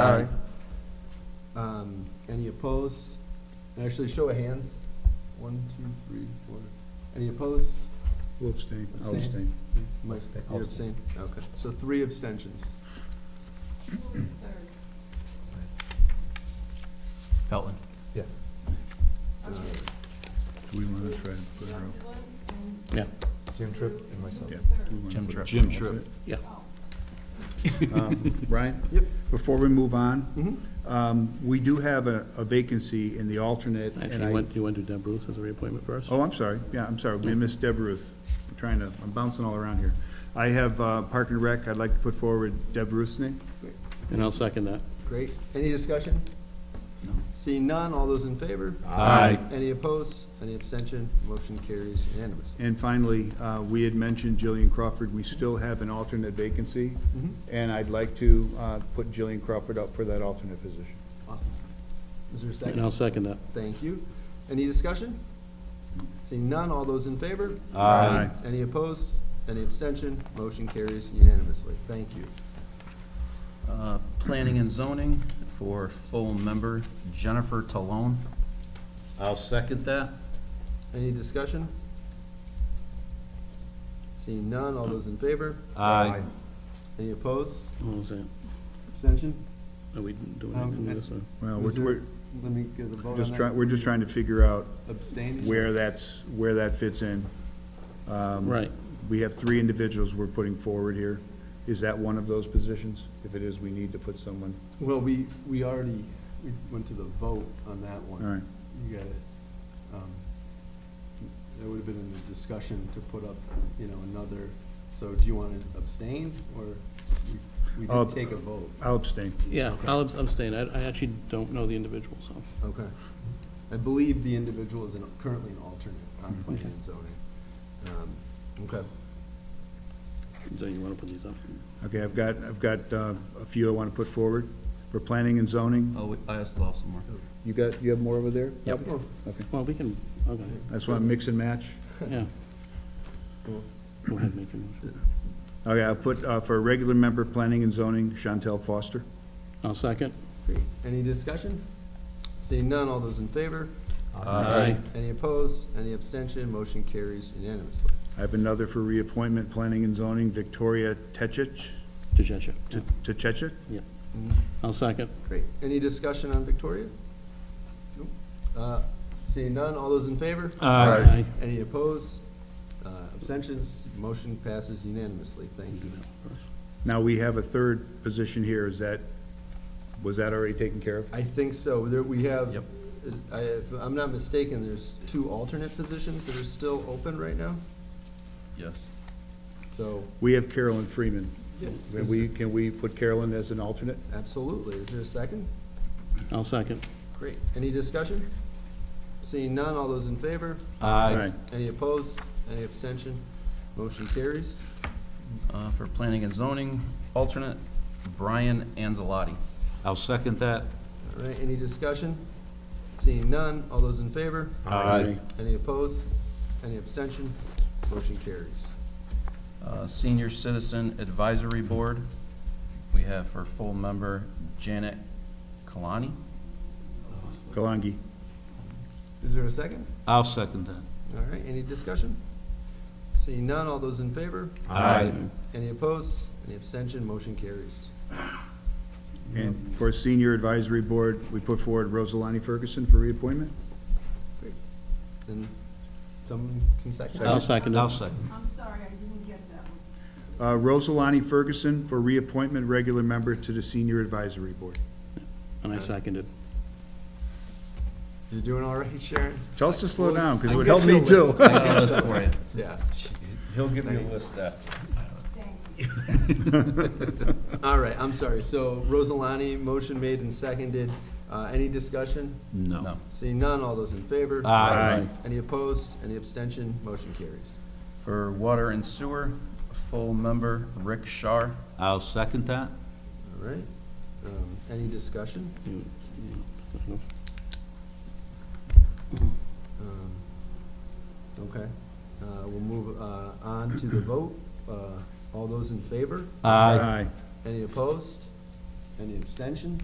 Aye. Um, any opposed? And Actually, show of hands. One, two, three, four. Any opposed? Will abstain. I'll Abstain. abstain. Mike, Abstain. you abstain? Okay, so three abstentions. Pelton. Yeah. Do we want to try and put her up? Yeah. Jim Tripp and myself. Yeah. we wanna Jim put Tripp. Jim an Tripp, yeah. alternate? Um, Brian? Yep. Before we move Mhm. on, um, we do have a a vacancy in the alternate. and Actually, I- you want, you want to do Deb Ruth as a reappointment first? Oh, I'm sorry, yeah, I'm sorry, we missed Deb Ruth, I'm trying to, I'm bouncing all around here. I have uh, Park and Rec, I'd like to put forward Deb Ruth's name. And I'll second that. Great. Any discussion? Seeing none, all those in favor? Aye. Any opposed? Any abstention? Motion carries unanimously. And finally, uh, we had mentioned Jillian Crawford, we still have an alternate vacancy, and I'd like to uh, put Jillian Crawford up for that alternate position. Awesome. Is there a And I'll second? second that. Thank you. Any discussion? Seeing none, all those in favor? Aye. Any opposed? Any abstention? Motion carries unanimously. Thank you. Uh, Planning and zoning for full member Jennifer Talone. I'll second that. Any discussion? Seeing none, all those in favor? Aye. Any opposed? What was Oh, that? Abstention? Are we doing Um, anything with this one? Well, Was we're, there- Let me get the vote we're on just that. trying, we're just trying to figure out Abstain? where that's, where that fits in. Um, Right. We have three individuals we're putting forward here. Is that one of those positions? If it is, we need to put someone. Well, we, we already, we went to the vote on that one. All right. You got it. Um, That would have been in the discussion to put up, you know, another, so do you want to abstain, or we- we Uh, did take a vote? I'll abstain. Yeah, I'll abs- abstain. I, I actually don't know the individual, so. Okay. I believe the individual is an- currently an alternate on Mm-hmm. planning and zoning. Um, Okay. Do you want to put these up? Okay, I've got, I've got uh, a few I want to put forward for planning and zoning. Oh, I asked Lyle some more. You got, you have more over there? Yep. Oh, Okay. Well, we can, okay, That's why I mix and match. yeah. Cool. Go ahead, make your motion. Okay, I'll put, uh, for a regular member, planning and zoning, Chantel Foster. I'll second. Great. Any discussion? Seeing none, all those in favor? Aye. Any opposed? Any abstention? Motion carries unanimously. I have another for reappointment, planning and zoning, Victoria Techich, Tchatcha. Te- Techich? Yeah. I'll second. Great. Any discussion on Victoria? Nope. Uh, Seeing none, all those in favor? Aye. Any opposed? Uh, Abstentions? Motion passes unanimously. Thank you. Now, we have a third position here. Is that, was that already taken care of? I think so. There, we have. Yep. I, if I'm not mistaken, there's two alternate positions that are still open right now, Yes. so, We have Carolyn Freeman. Yeah. Can we, can we put Carolyn as an alternate? absolutely. Is there a second? I'll second. Great. Any discussion? Seeing none, all those in favor? Aye. Any opposed? Any abstention? Motion carries. Uh, For planning and zoning, alternate Brian Anzalotti. I'll second that. All right, any discussion? Seeing none, all those in favor? Aye. Any opposed? Any abstention? Motion carries. Uh, Senior Citizen Advisory Board, we have for full member Janet Kalani. Kalangi. Is there a second? I'll second that. All right, any discussion? Seeing none, all those in favor? Aye. Any opposed? Any abstention? Motion carries. And for Senior Advisory Board, we put forward Rosalani Ferguson for reappointment. Great. And someone can second? I'll second I'll it. second. I'm sorry, I didn't get that one. Uh, Rosalani Ferguson for reappointment, regular member to the Senior Advisory Board. And I seconded. You're doing all right, Sharon? Tell us to slow down, because it I'll would get help you a me too. list. I got a list for you. Yeah. He'll give me a list after. Thank you. All right, I'm sorry. So Rosalani, motion made and seconded. Uh, any discussion? No. No. Seeing none, all those in favor? Aye. Any opposed? Any abstention? Motion carries. For water and sewer, full member Rick Shar. I'll second that. All right. Um, Any discussion? You- you- Um, Okay. Uh, We'll move uh, on to the vote. Uh, All those in favor? Aye. Any opposed? Any abstention?